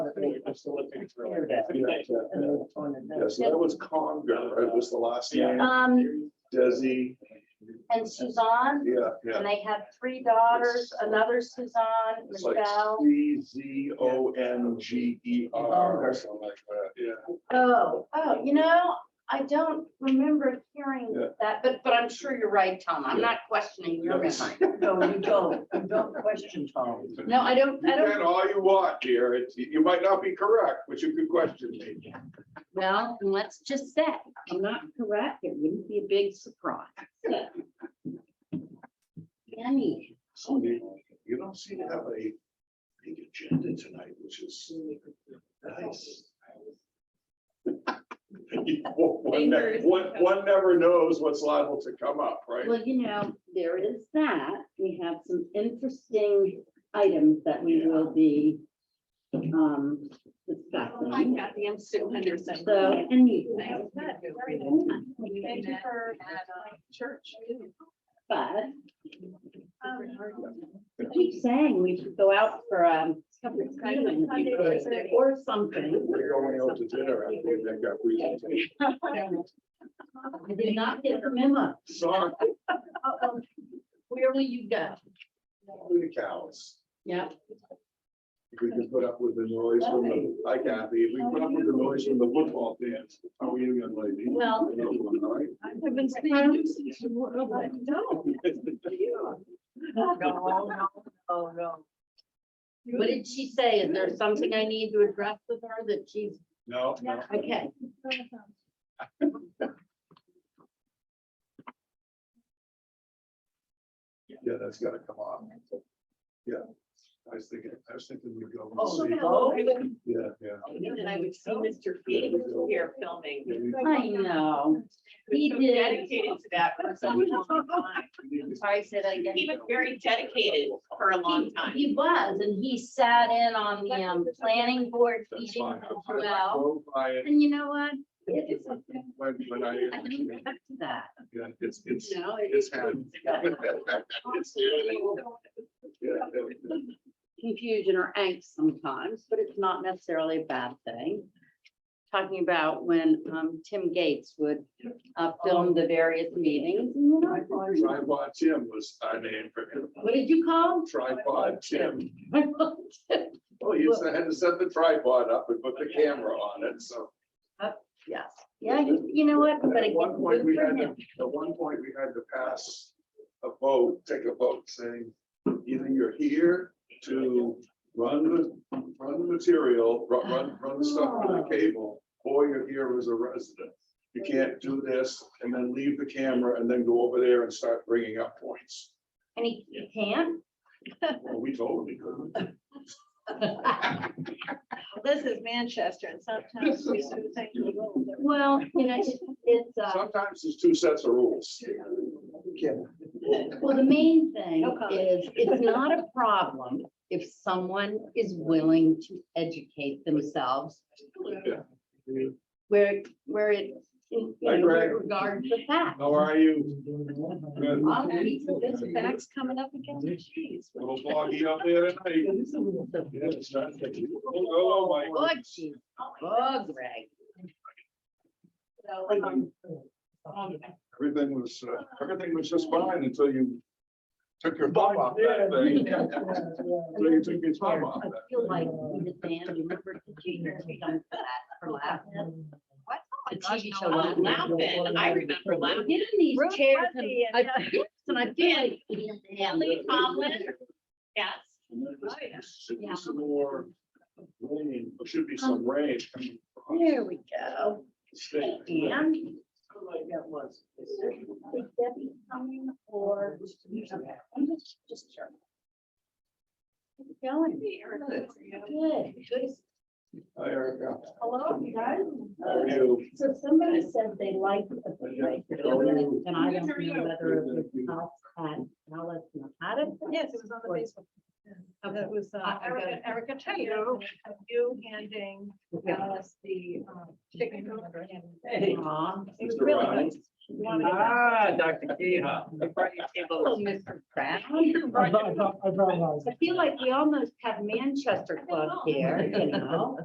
it facilitates really. Yeah, so that was Conger, right, was the last Yeah. name, Um, Desi, and Suzanne, yeah, yeah. and they have three daughters, another Suzanne, It's like Michelle. C Z O N G E R or something like that, yeah. Oh, oh, you know, I don't remember hearing Yeah. that, but, but I'm sure you're right, Tom. I'm Yeah. not questioning your Yes. memory. No, you don't, you don't question Tom. No, I don't, You I can don't, all you want here, it's, you might not be correct, but you could question me. well, and let's just say, I'm not correct. It wouldn't be a big surprise. Yummy. So you, you don't seem to have a big agenda tonight, which is nice. One ne- Fingers. one- one never knows what's liable to come up, right? Well, you know, there is that. We have some interesting items that we will be um Hi, discussing. Kathy, I'm Sue Henderson. So, and you, Nice to meet you. Thank you for at, uh, church. but Um, I keep saying we should go out for um or something. We're going out to dinner, I think that got presentation. I did not get the memo. Sorry, Where will you go? we the cows. Yeah, If we can put up with the noise from the, hi Kathy, if we put up with the noise from the football fans, how are you gonna lady? well, You know, all right. I've been seeing you since you were. oh, my- No. No, no, no, no. what did she say? Is there something I need to address with her that she's, No, no. okay, Yeah, that's gotta come off. Yeah. I was thinking, I was thinking we'd go. Oh, see. no. Yeah, yeah. I knew that I would see Mr. Feeding here filming. Yeah, we- I know. He So did. Dedicated to that for such a long time. we need to- Sorry, say that again. He was very dedicated for a long time. He was, and he sat in on the um planning board That's meeting fine. as I'll- well. I'll go by it And you know what? It's, I When, when I, don't go back to that, yeah, it's, it's, you know? it- it's happened. Yeah, yeah. confusion or angst sometimes, but it's not necessarily a bad thing. Talking about when um Tim Gates would uh film the various meetings. and, you know, Tripod Tim was our name for him. What did you call? Tripod Tim. him? Well, he used to had to set the tripod up and put the camera on it, so. Yes, yeah, you you know what, but At again, one point, good we for had, to- him. at one point, we had to pass a vote, take a vote saying, either you're here to run the, run the material, run, run, run the stuff for Oh. the cable, or you're here as a resident. You can't do this and then leave the camera and then go over there and start bringing up points. and he he can't, Well, we told him he couldn't. This is Manchester and sometimes we sort of think. well, you know, it's- it's uh. Sometimes there's two sets of rules. Well, the main thing No comment. is, it's not a problem if someone is willing to educate themselves where, where it, you Hi, know, Greg. regards the fact. How are you? Good. I'll be- This fact's coming up again. Jeez. Little foggy up there tonight. Yeah, it's not- Hello, Mike. Oh, geez. Oh, Greg. So, um, um, Everything was, uh, everything was just fine until you took your thumb off that thing. Until you took your thumb off I that. feel like the band, remember the junior, we done that for last. What? The TV show. Oh, Laugh Now. Laughing, I remember I'm laughing. getting these Ruth chairs and Putney I, and, uh, yes, and I feel like. Emily Tomlin. Yes. And then Oh, yeah. there's- there's Some more rain, there should be some rain coming. across There we go. the state. And. That was. Is Debbie coming or? Okay, I'm just, just sure. How's it going? Good. Good. Hi, Erica. Hello, you guys. How are you? So somebody said they liked the play, and I don't know whether it was us at Alice and Adam. Yes, it was on the Facebook. That was uh, Erica, Erica Taylor, you handing us the um, chicken. number and- Hey. Aw. It was Mr. really Ryan? good. Ah, Dr. Keha. Hello, Mr. Oh, Pratt. I brought, I brought mine. I feel like we almost have Manchester Club here, you know?